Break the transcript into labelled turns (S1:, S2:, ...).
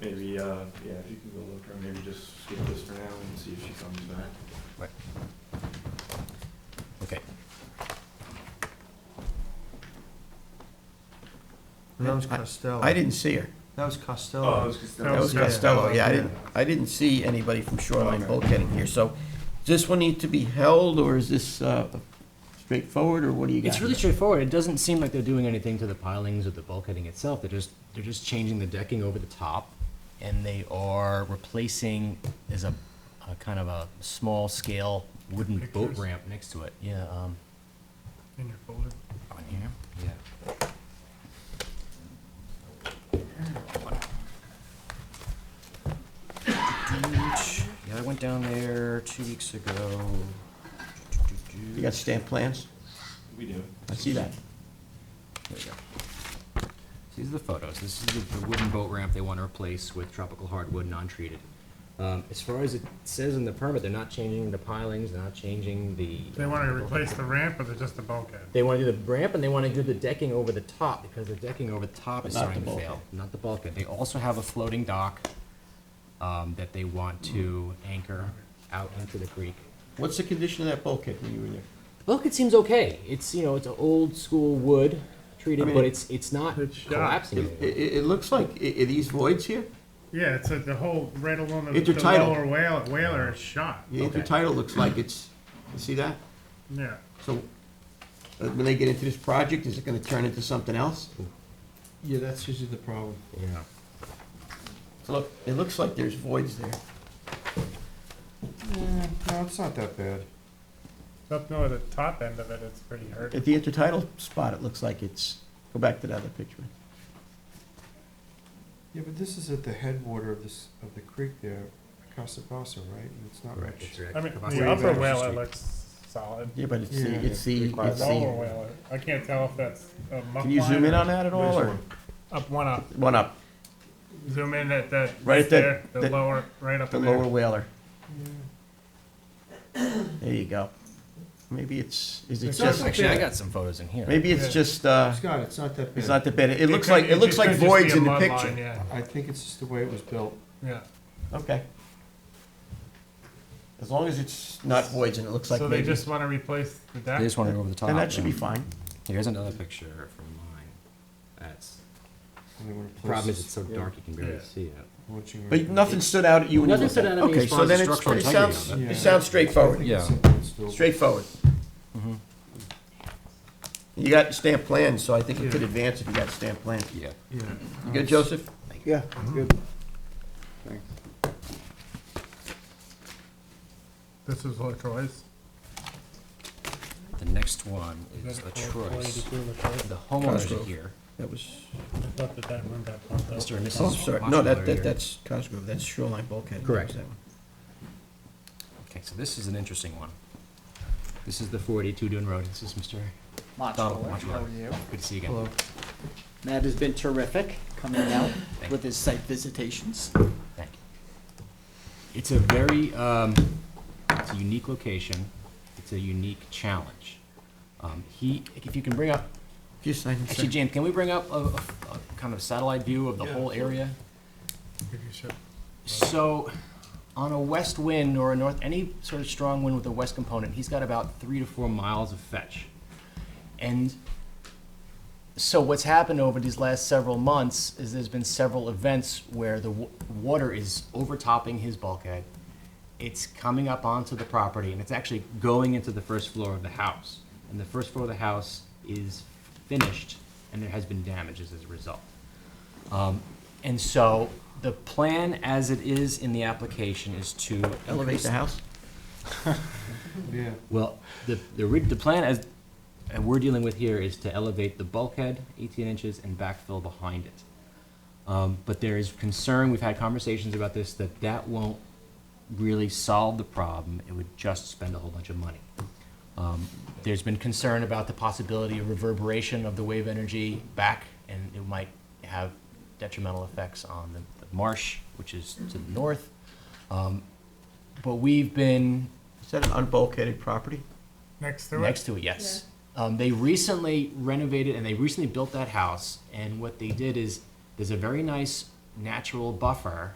S1: Maybe, uh, yeah, if you can go look, or maybe just skip this for now and see if she comes back.
S2: Okay.
S3: And that was
S2: I-
S3: Costello.
S2: I didn't see her.
S3: That was
S1: Oh,
S3: Costello.
S1: I was just.
S3: That
S2: That was
S3: was- yeah.
S2: Costello, yeah, I
S3: Yeah.
S2: didn't, I didn't see anybody from Shoreline
S1: Okay.
S2: bulkheading here, so does this one need to be held, or is this uh, straightforward, or what do you got?
S4: It's really straightforward. It doesn't seem like they're doing anything to the pilings or the bulkheading itself. They're just, they're just changing the decking over the top. And they are replacing, there's a, a kind of a small scale wooden boat
S5: Pictures?
S4: ramp next to it. Yeah, um,
S5: In your folder.
S4: on here? Yeah. Yeah, I went down there two weeks ago.
S2: You got stamp plans?
S1: We do.
S2: I see that.
S4: There you go. These are the photos. This is the the wooden boat ramp they want to replace with tropical hardwood, non-treated. Um, As far as it says in the permit, they're not changing the pilings, they're not changing the.
S5: They want to replace the ramp or they're just the bulkhead?
S4: They want to do the ramp and they want to do the decking over the top because the decking over the top is
S2: Not the
S4: starting to fail.
S2: bulkhead.
S4: Not the bulkhead. They also have a floating dock um, that they want to anchor out into the creek.
S2: What's the condition of that bulkhead when you were there?
S4: The bulkhead seems okay. It's, you know, it's an old school wood
S2: I
S4: treated,
S2: mean,
S4: but it's, it's not
S5: it's shot.
S4: collapsing.
S2: It,
S4: anymore.
S2: it, it looks like, i- are these voids here?
S5: Yeah, it's like the whole, right along the, the
S2: Intertidal.
S5: lower whale, whaler is shot.
S2: The
S4: Okay.
S2: intertidal looks like it's, you see that?
S5: Yeah.
S2: So, uh, when they get into this project, is it gonna turn into something else?
S3: Yeah, that's usually the problem.
S4: Yeah.
S2: Look, it looks like there's voids there.
S3: No, it's not that bad.
S5: Up near the top end of it, it's pretty hurt.
S2: At the intertidal spot, it looks like it's, go back to that other picture.
S3: Yeah, but this is at the headwater of this, of the creek there, Casa Bassa, right? And it's not much.
S5: I mean,
S4: Across
S5: the upper
S4: street.
S5: whaler looks solid.
S2: Yeah, but it's
S3: Yeah.
S2: the, it's the,
S5: The
S2: it's
S5: lower
S2: the,
S5: whaler, I can't tell if that's a muck
S2: can you zoom in
S5: line or-
S2: on that at all, or?
S5: Up one up,
S2: One up,
S5: zoom in at that,
S2: Right
S5: right
S2: at that-
S5: there, the
S2: that-
S5: lower, right up
S2: the
S5: in
S2: lower
S5: there.
S2: whaler. There you go. Maybe it's, is it
S5: It's not
S2: just,
S5: like-
S4: Actually, I got some photos in here.
S2: maybe it's
S5: Yeah.
S2: just, uh,
S3: Scott, it's not that bad.
S2: it's not the bed. It looks
S5: could-
S2: like, it looks
S5: just
S2: like
S5: could just be
S2: voids
S5: a
S2: in the
S5: mud line,
S2: picture.
S5: Yeah,
S3: I think it's just the way it was built.
S5: yeah.
S2: Okay. As long as it's not voids and it looks like
S5: So they
S2: maybe,
S5: just want to replace the
S4: They
S5: deck?
S4: just want to go over the top.
S2: then that should be
S4: yeah.
S2: fine.
S4: Here's another picture from mine. That's
S3: and they wanna
S4: the
S3: place
S4: problem is
S3: this-
S4: it's so
S3: yeah,
S4: dark you can barely
S5: Yeah.
S4: see it.
S3: watching
S2: But
S3: right now.
S2: nothing stood out at you when you
S4: Nothing
S2: looked
S4: stood
S2: at it.
S4: out at me as
S2: Okay,
S4: far
S2: so
S4: as the
S2: then it's,
S4: structural
S2: it
S4: integrity
S2: sounds,
S4: of
S3: it.
S2: it sounds
S3: I
S2: straightforward,
S3: think it's
S4: Yeah.
S3: something still-
S2: straightforward.
S4: Mm-hmm.
S2: You got stamp plans, so I think you could
S3: Yeah.
S2: advance if you got stamp plans.
S4: Yeah.
S3: Yeah.
S2: You good, Joseph?
S6: Yeah,
S3: Mm-hmm.
S6: good. Thanks.
S5: This is Lacroix.
S4: The next one
S5: That's
S4: is La
S5: called
S4: Troy's.
S5: Croix de Dieu La Croix.
S4: The homeowners are
S2: Cosgrove.
S4: here.
S2: That was,
S5: I thought that that one got bumped up.
S4: Mr. and
S2: oh, I'm
S4: Mrs.
S2: sorry, no, that,
S4: Moshler
S2: that,
S4: here.
S2: that's Cosgrove, that's Shoreline Bulkhead.
S4: Correct.
S2: That one.
S4: Okay, so this is an interesting one. This is the 482 Dune Road. This is Mr.
S6: Much
S4: Oh,
S6: lower.
S4: much
S6: How
S4: lower.
S6: are you?
S4: Good to see you again.
S3: Hello.
S6: Matt has been terrific coming out
S4: Thank
S6: with his site visitations.
S4: Thank you. It's a very, um, it's a unique location. It's a unique challenge. Um, he, if you can bring up
S2: Just sign
S4: Actually,
S2: it, sir.
S4: James, can we bring up a, a- a kind of satellite view of the
S5: Yeah,
S4: whole area?
S5: Maybe you uh, should.
S4: So, on a west wind or a north, any sort of strong wind with a west component, he's got about three to four miles of fetch. And so, what's happened over these last several months is there's been several events where the w- water is overtopping his bulkhead. It's coming up onto the property and it's actually going into the first floor of the house. And the first floor of the house is finished and there has been damages as a result. Um, And so the plan as it is in the application is to.
S2: Elevate the house?
S3: Yeah.
S4: Well, the, the, ri- the plan as, and we're dealing with here is to elevate the bulkhead eighteen inches and backfill behind it. Um, but there is concern, we've had conversations about this, that that won't really solve the problem. It would just spend a whole bunch of money. Um, there's been concern about the possibility of reverberation of the wave energy back, and it might have detrimental effects on the, the marsh, which is to the north. Um, but we've been
S2: Is that an unbulkheaded property?
S5: Next to it?
S4: Next to it, yes. Um, they recently renovated and they recently built that house. And what they did is there's a very nice natural buffer